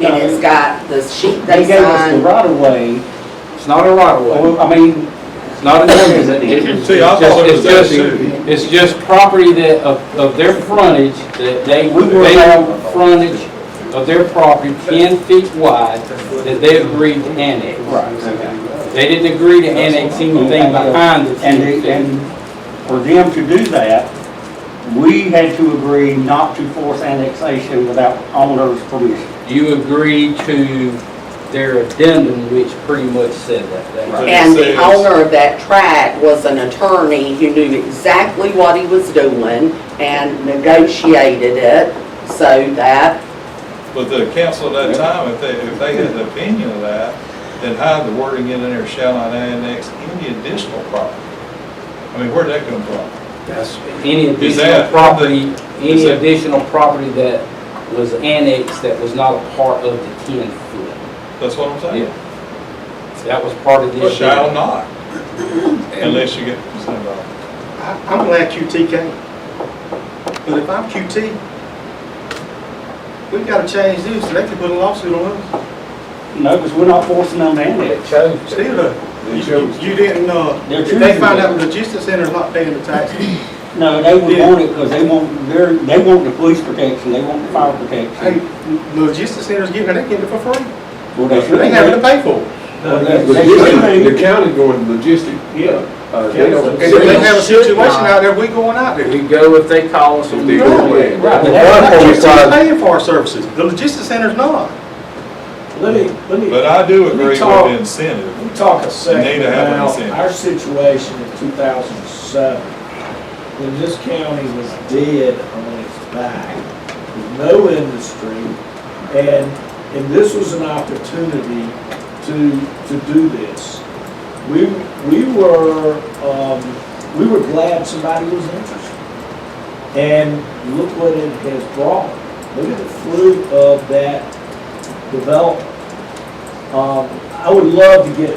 And it's got the sheet They they gave us the signed. right of way, It's not a right of way. Well, I mean, It's not an ordinance at the end. It's Oh. See, I just- thought it was it's just- that too. It's just property that, of, of their frontage, that they, We will they have- have frontage of their property ten feet wide that they agreed to annex. right. They didn't agree to annex anything behind the And, ten they- feet. and for them to do that, we had to agree not to force annexation without owner's permission. You agreed to their addendum, which pretty much said that. That's- Right. And the It says- owner of that tract was an attorney who knew exactly what he was doing and negotiated it so that But the council at that time, if they, if they had the opinion of that, then hide the wording in there, shall not annex any additional property. I mean, where'd that come from? That's Any Is additional that- property, any that- additional property that was annexed that was not a part of the ten foot. That's what I'm saying. That was part of the. Shall addendum. not, unless you get, involved. I- I'm glad QT came, but if I'm QT, we've got to change this, they could put a lawsuit on us, No, because we're not forcing them to annex. still, uh, you- you you didn't, uh, They're if they find choosing out the logistics center's not paying the taxes, No, they would want it because they want their, they want the police protection, they want the fire hey, protection. the logistics center's giving, they getting it for free, Well, they should. they having to pay for it. Well, they- they should. The county going logistic, Yeah. uh, they don't. And if they have a Should situation not. out there, we going out there. We go if they call us. If they go in. Right. The Not gun QT requires- paying for our services, the logistics center's not. Let me, let me, but I do agree with talk. the incentive. we talk a Need second to have an about incentive. our situation in two thousand and seven, when this county was dead on its back, with no industry, and, and this was an opportunity to, to do this. We, we were, um, we were glad somebody was interested. And look what it has brought. Look at the fruit of that development. Um, I would love to get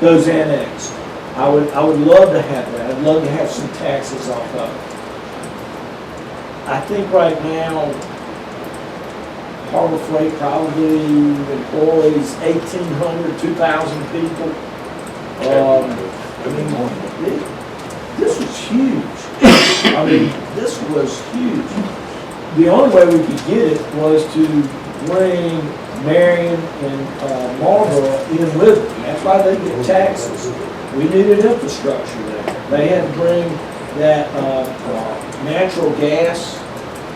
those annexed. I would, I would love to have that. I'd love to have some taxes off of it. I think right now, Harbor Freight probably employs 1,800, 2,000 people. Um, I mean, thi- this was huge. I mean, this was huge. The only way we could get it was to bring Marion and uh, Marlboro in with it. That's why they get taxes. We needed infrastructure there. They had to bring that uh, uh, natural gas,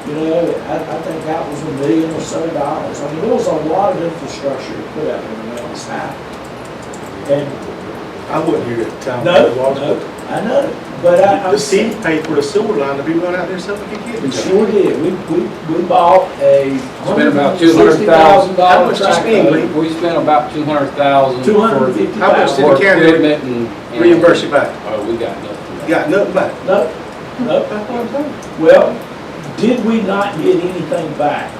you know, I, I think that was a million or so dollars. I mean, there was a lot of infrastructure to put out in the mountain side. And, I wouldn't hear that town. no, no, I know, but I, I'm. The city paid for the sewer line to be run out there so we could get We it. sure did. We, we, we bought a. Spent about two hundred thousand How dollars. much you spend, Lee? We spent about two hundred thousand. Two hundred and fifty How much thousand. did the For county equipment and. and- reimburse you back? Oh, we got nothing. Got nothing back. No, no. That's what I'm saying. Well, did we not get anything back?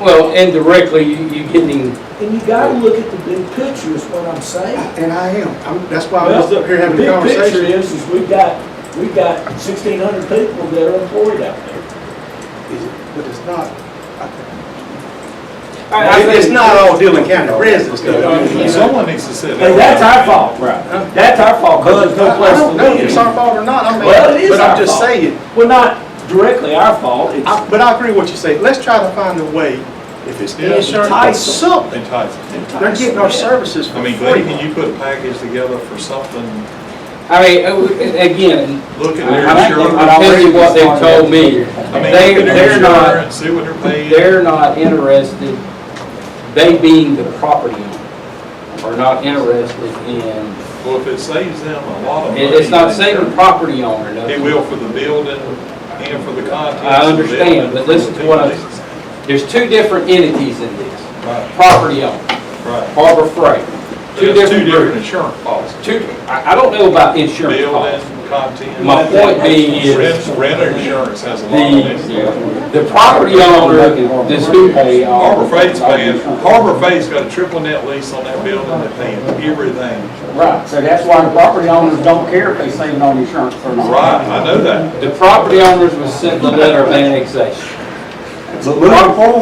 Well, indirectly, you, you getting, And you gotta look at the big picture is what I'm saying. And I am. I'm, that's why I was Well, up here having a The big conversation. picture is, is we've got, we've got sixteen hundred people that are employed out there. Is it- But it's not. I think- I It's not all Dillon County residents though. Someone needs to sit And down. that's our fault, right? That's our fault, cause there's no I place don't know if to it's live. our fault or not. I mean, Well, it is But our I'm just fault. saying, Well, not directly our fault, it's. I- but I agree with what you say. Let's try to find a way, if it's Yeah. insurance or Entice them. something, Entitled. they're getting our services I for mean, Glenn, free. can you put a package together for something, I mean, uh, we- again, look at I'm their insurance? I'll tell you what they've told me. I mean, They- look at their they're not- insurance, see what they're paying. They're not interested, they being the property owner, are not interested in, Well, if it saves them a lot of money. it- it's not saving the property owner, It no. will for the building and for the contents. I understand, but listen to what I- There's two different entities in this, Right, property owner, right. Harbor Freight. Two There's two different different groups. insurance policies. Two, I, I don't know about insurance policy. Building, content. My point being is, Rent, renter insurance has a lot of it. the, the property owner, this who They are- Harbor Freight's paying, Harbor Freight's got a triple net lease on that building, they're paying everything. Right, so that's why the property owners don't care if they save on insurance or not. Right, I know that. the property owners was sent the letter of annexation. But moving forward,